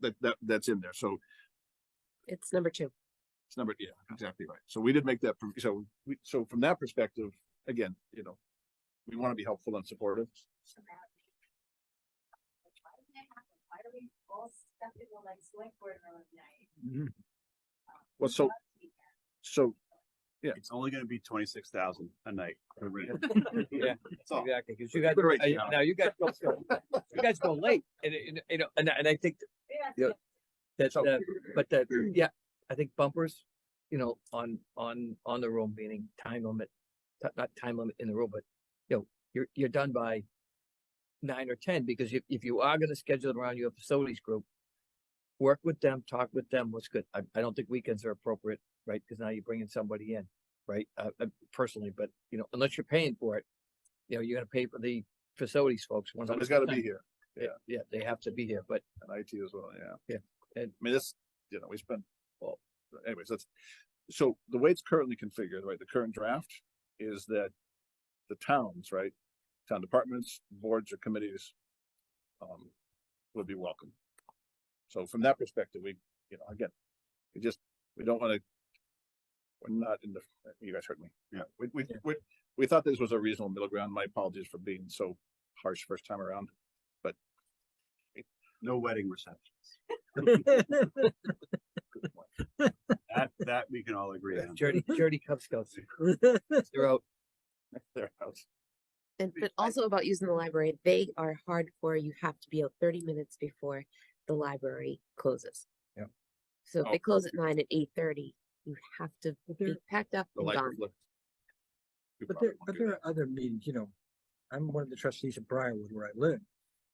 that, that, that's in there. So It's number two. it's number, yeah, exactly right. So we did make that, pro- so we, so from that perspective, again, you know, we want to be helpful and supportive. Why did that happen? Why do we all step in the like select board room at night? Well, so, so, It's only gonna be twenty-six thousand a night. for rent. Yeah, That's all. Exactly, because you guys, Good rates, I- yeah. now you guys, go- you guys go late, and, it- and, you know, and, I- and I think Yeah. Yeah. that's, So- uh, but that, yeah, I think bumpers, you know, on, on, on the room, meaning time limit. ti- Not time limit in the room, but, you know, you're, you're done by nine or ten, because if, if you are gonna schedule it around your facilities group, work with them, talk with them, what's good. I, I don't think weekends are appropriate, right? Because now you're bringing somebody in, right? Uh, uh, personally, but, you know, unless you're paying for it, you know, you're gonna pay for the facilities folks. somebody's got to be 100%. here Yeah, yeah, they have to be here, but and IT as well, yeah. Yeah, And and- I mean, this, you know, we spent, well, anyways, that's, so the way it's currently configured, right, the current draft is that the towns, right, town departments, boards or committees, um, would be welcome. So from that perspective, we, you know, again, we just, we don't wanna, we're not in the, you guys heard me. Yeah. We, we, we, we thought this was a reasonable middle ground. My apologies for being so harsh first time around. No wedding receptions. Good point. That, that we can all agree on. Dirty, dirty Cub Scouts. They're out. Their house. And Be but also about using the library, they are hardcore. You have to be out thirty minutes before the library closes. Yep. So if Oh. they close at nine at eight thirty, you have to be packed up the and light gone. reflect- You But probably there, won't but do there that. are other meetings, you know, I'm one of the trustees of Briarwood where I live.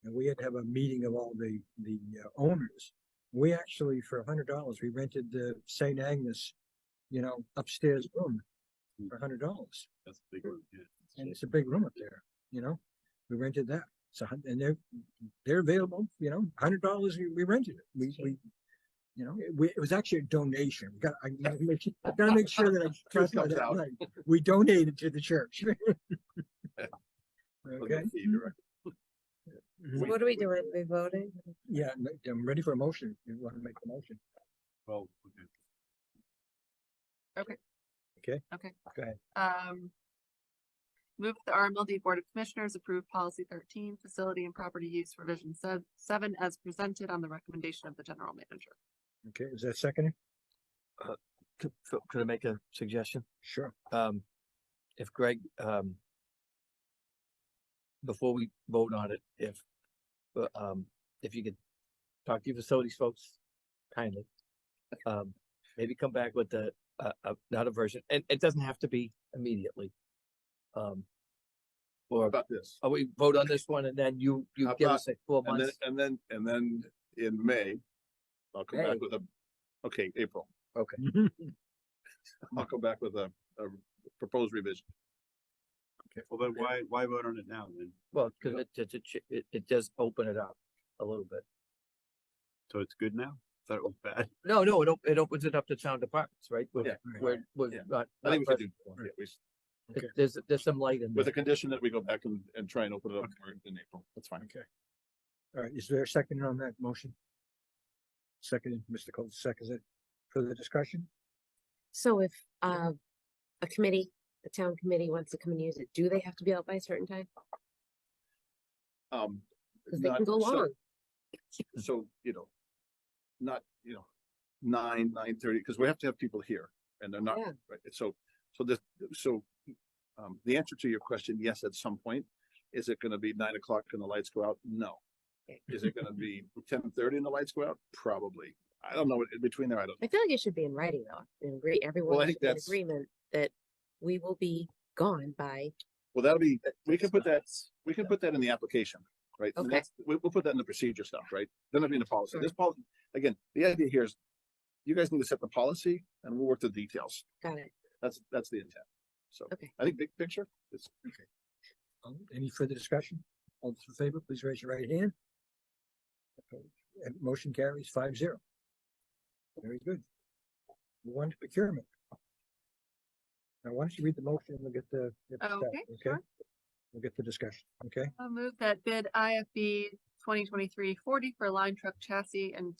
And we had to have a meeting of all the, the uh, owners. We actually, for a hundred dollars, we rented the St. Agnes, you know, upstairs room for a hundred dollars. That's a big one. yeah. And it's a big room up there, you know, we rented that. So, and they're, they're available, you know, a hundred dollars, we- we rented it. We, we, you know, it, we, it was actually a donation. We got, I gotta make, su- I gotta make sure that I Truth trust my- comes that, out. right. we donated to the church. Look at Okay, the director. Mhm. What are we doing? We voting? yeah, I'm re- I'm ready for a motion. You want to make a motion? Well, okay. Um. Move that the RMLD Board of Commissioners approve policy thirteen, facility and property use revision se- seven as presented on the recommendation of the general manager. Okay, is that seconded? Could, so could I make a suggestion? Sure. Um, if Greg, um, before we vote on it, if, uh, um, if you could talk to your facilities folks kindly, um, maybe come back with a, a, a- not a version, and it doesn't have to be immediately. Um, How or, About this, oh, we vote on this one and then you, you How give about- us like four and then, months. and then, and then in May, I'll come May. back with a, okay, April, Okay. I'll come back with a, a proposed revision. Well, then why, why vote on it now then? Well, cause it, it, it ch- it, it does open it up a little bit. So it's good now? Thought it was bad. No, no, it, op- it opens it up to town departments, right? We're- Yeah. We're, we're Yeah. not. I think we not should do, pressing yeah, we s- it. There's, there's some light in with a there. condition that we go back and, and try and open it up more in April, that's fine. Okay. All right, is there a second on that motion? Seconded, Mr. Cole, seconds it. Further discussion? So if uh a committee, a town committee wants to come and use it, do they have to be out by a certain time? Um. Cause they not- can go so- long. So, you know, not, you know, nine, nine thirty, because we have to have people here and they're not, Yeah. right? So, so this, so, um, the answer to your question, yes, at some point, is it gonna be nine o'clock and the lights go out? No. Is it gonna be ten thirty and the lights go out? Probably. I don't know, in between there, I don't, I feel like it should be in writing though, and agree, everyone think should be in that's- agreement that we will be gone by, well, that'll be, we can put that, we can put that in the application, right? And Okay. that's- We, we'll put that in the procedure stuff, right? Then it'll be in the policy. This policy, again, the idea here is you guys need to set the policy and we'll work the details. got it, That's, that's the intent. So Okay. I think big picture is Um, Any further discussion? All those in favor, please raise your right hand. Opposed? And motion carries five zero. Very good. Move on to procurement. Now, why don't you read the motion and we'll get the. get the Okay, stat, sure. We'll get the discussion, okay? I move that bid IFB 2023-40 for line truck chassis and